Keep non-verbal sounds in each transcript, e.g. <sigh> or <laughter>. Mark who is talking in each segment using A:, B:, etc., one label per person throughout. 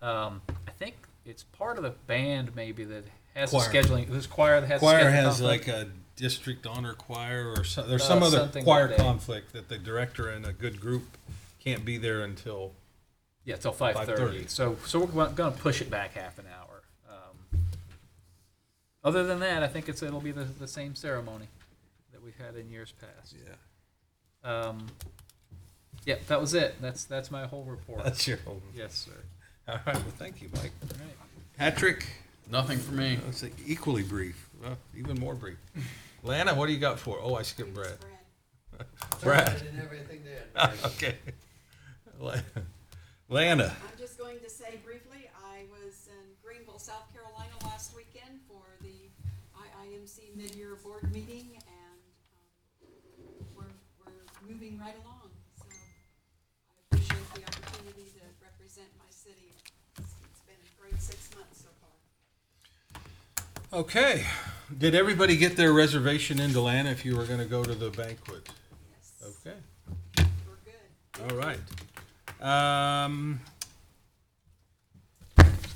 A: Um, I think it's part of the band maybe that has the
B: Choir.
A: scheduling. This choir that has the
B: choir
A: scheduling
B: has
A: conflict.
B: like a district honor choir or so, there's
A: Uh,
B: some other
A: something
B: choir
A: like that.
B: conflict that the director and a good group can't be there until
A: Yeah, till five thirty.
B: 5:30.
A: So, so we're going to push it back half an hour. Um, other than that, I think it's it'll be the, the same ceremony that we've had in years past.
B: yeah
A: Um, yeah, that was it. That's that's my whole report.
B: that's your own
A: yes, sir.
B: all right well thank you mike
A: All right.
B: patrick
C: Nothing for me.
B: that's equally brief well, even more brief lana what do you got for oh i skipped brad brad
D: And everything there.
B: <laughs> okay La- lana
E: I'm just going to say briefly, I was in Greenville, South Carolina last weekend for the IIMC mid-year board meeting and um, we're, we're moving right along. So I appreciate the opportunity to represent my city. It's it's been a great six months so far.
B: okay did everybody get their reservation into lana if you were going to go to the banquet
E: Yes,
B: okay
E: we're good.
B: All right. Um,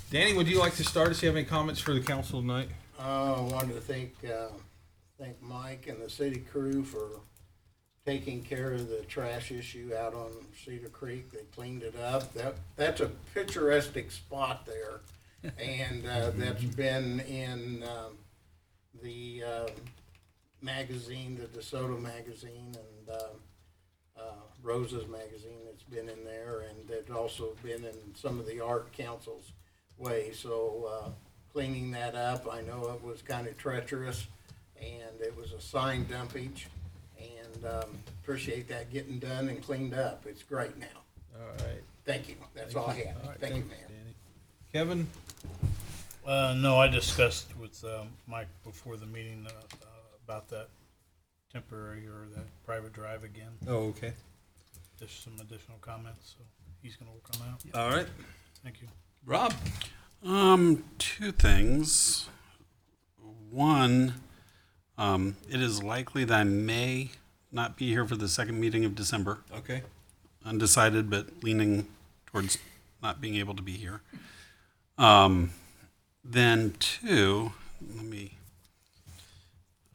B: Danny, would you like to start us? You have any comments for the council tonight?
D: Uh, I wanted to thank, uh, thank Mike and the city crew for taking care of the trash issue out on Cedar Creek. They cleaned it up. That, that's a picturesque spot there. And, uh, that's been in, um, the, um magazine, the DeSoto magazine and, um, uh, Rose's magazine. It's been in there and it's also been in some of the art councils way. So, uh, cleaning that up. I know it was kind of treacherous, and it was a sign dumpage, and um, appreciate that getting done and cleaned up. It's great now.
B: All right.
D: Thank you. That's all I have. Thank you, Mayor.
B: Kevin?
F: Uh, no, I discussed with um, Mike before the meeting uh, uh, about that temporary or that private drive again.
B: Oh, okay.
F: Just some additional comments, so he's gonna work on that.
B: All right.
F: Thank you.
B: Rob?
C: Um, two things. One, um, it is likely that I may not be here for the second meeting of December.
B: Okay.
C: Undecided, but leaning towards not being able to be here. Um, then two, let me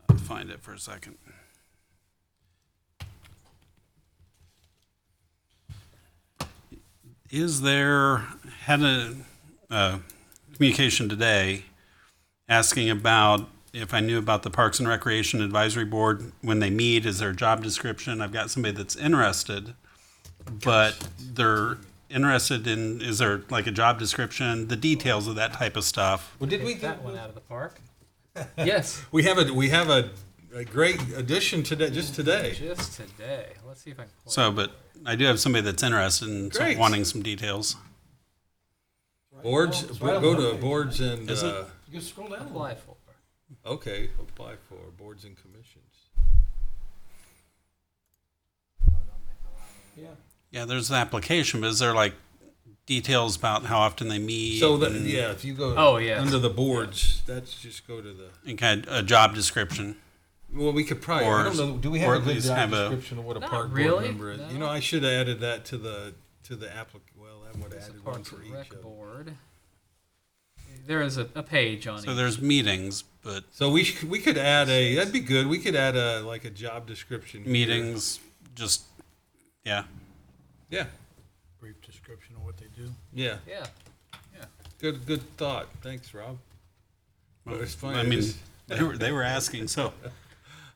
C: uh, find it for a second. Is there, had a, uh, communication today asking about if I knew about the Parks and Recreation Advisory Board, when they meet, is there a job description? I've got somebody that's interested, but they're interested in, is there like a job description, the details of that type of stuff?
B: Well, did
A: Hit
B: we
A: that one out of the park. yes, <laughs>
B: We have a, we have a, a great addition today, just today.
A: just today. Let's see if I can. Pull
C: So,
A: it.
C: but I do have somebody that's interested in some-
B: Great.
C: wanting some details.
B: Boards, go to boards and,
C: Is it?
B: uh,
F: You can scroll down.
A: apply for.
B: okay, apply for boards and commissions. Yeah.
C: Yeah, there's an application, but is there like details about how often they meet?
B: So that,
C: and-
B: yeah, if you go
A: Oh, yeah.
B: under the boards, that's just go to the.
C: And kind of a job description.
B: Well, we could probably. I
C: Or-
B: don't know. Do we have
C: or
B: a
C: at
B: good
C: least
B: job
C: have a-
B: description of what a
A: Not
B: park board
A: really,
B: member is? You
A: no.
B: know, I should have added that to the to the applicant. Well, that would have
A: There's a
B: added one
A: Parks
B: for
A: and
B: each.
A: Rec
B: Of them.
A: board. There is a, a page on
C: So
A: each.
C: there's meetings, but
B: So we sh- we could add a. That'd be good. We could add a like a job description. here.
C: meetings, just, yeah.
B: Yeah.
F: Brief description of what they do.
B: Yeah.
A: Yeah.
B: Good. Good thought. Thanks, Rob. But it's funny.
C: I
B: I
C: mean, they were, they were
B: <laughs>
C: asking, so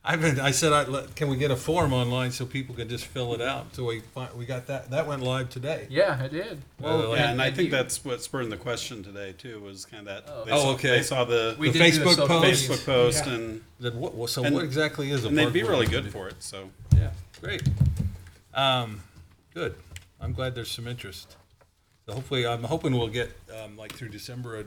B: I've been. I said, I let, can we get a form online so people can just fill it out? So we fi- we got that. That went live today. Uh,
A: Yeah, I did.
B: Well,
C: yeah, and I
A: and
C: think
A: you-
C: that's what spurred the question today too. Was kind of that.
A: Oh,
C: they
B: Oh,
C: saw,
B: okay.
C: They saw the,
A: We
B: The
A: did do
B: Facebook
A: social
B: post?
A: media.
C: Facebook post, and
B: Then what, well, so
C: And-
B: what exactly is a?
C: and they'd
B: park
C: be
B: board
C: really
B: member?
C: good for it. So
B: Yeah, great. Um, good. I'm glad there's some interest. So hopefully, I'm hoping we'll get um, like through December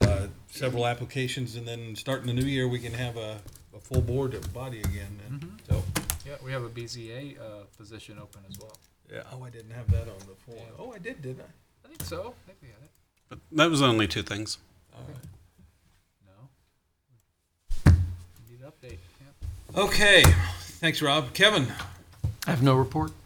B: uh, uh, several applications, and then starting the new year, we can have a, a full board of body again. And So
A: Yeah, we have a BZA uh, position open as well.
B: yeah. Oh, I didn't have that on the form. Oh, I did, didn't I?
A: I think so. I think we had it.
C: but that was only two things.
B: All right.
A: No. Need an update. Yeah.
B: Okay. Thanks, Rob. Kevin.
G: I have no report.
B: Um,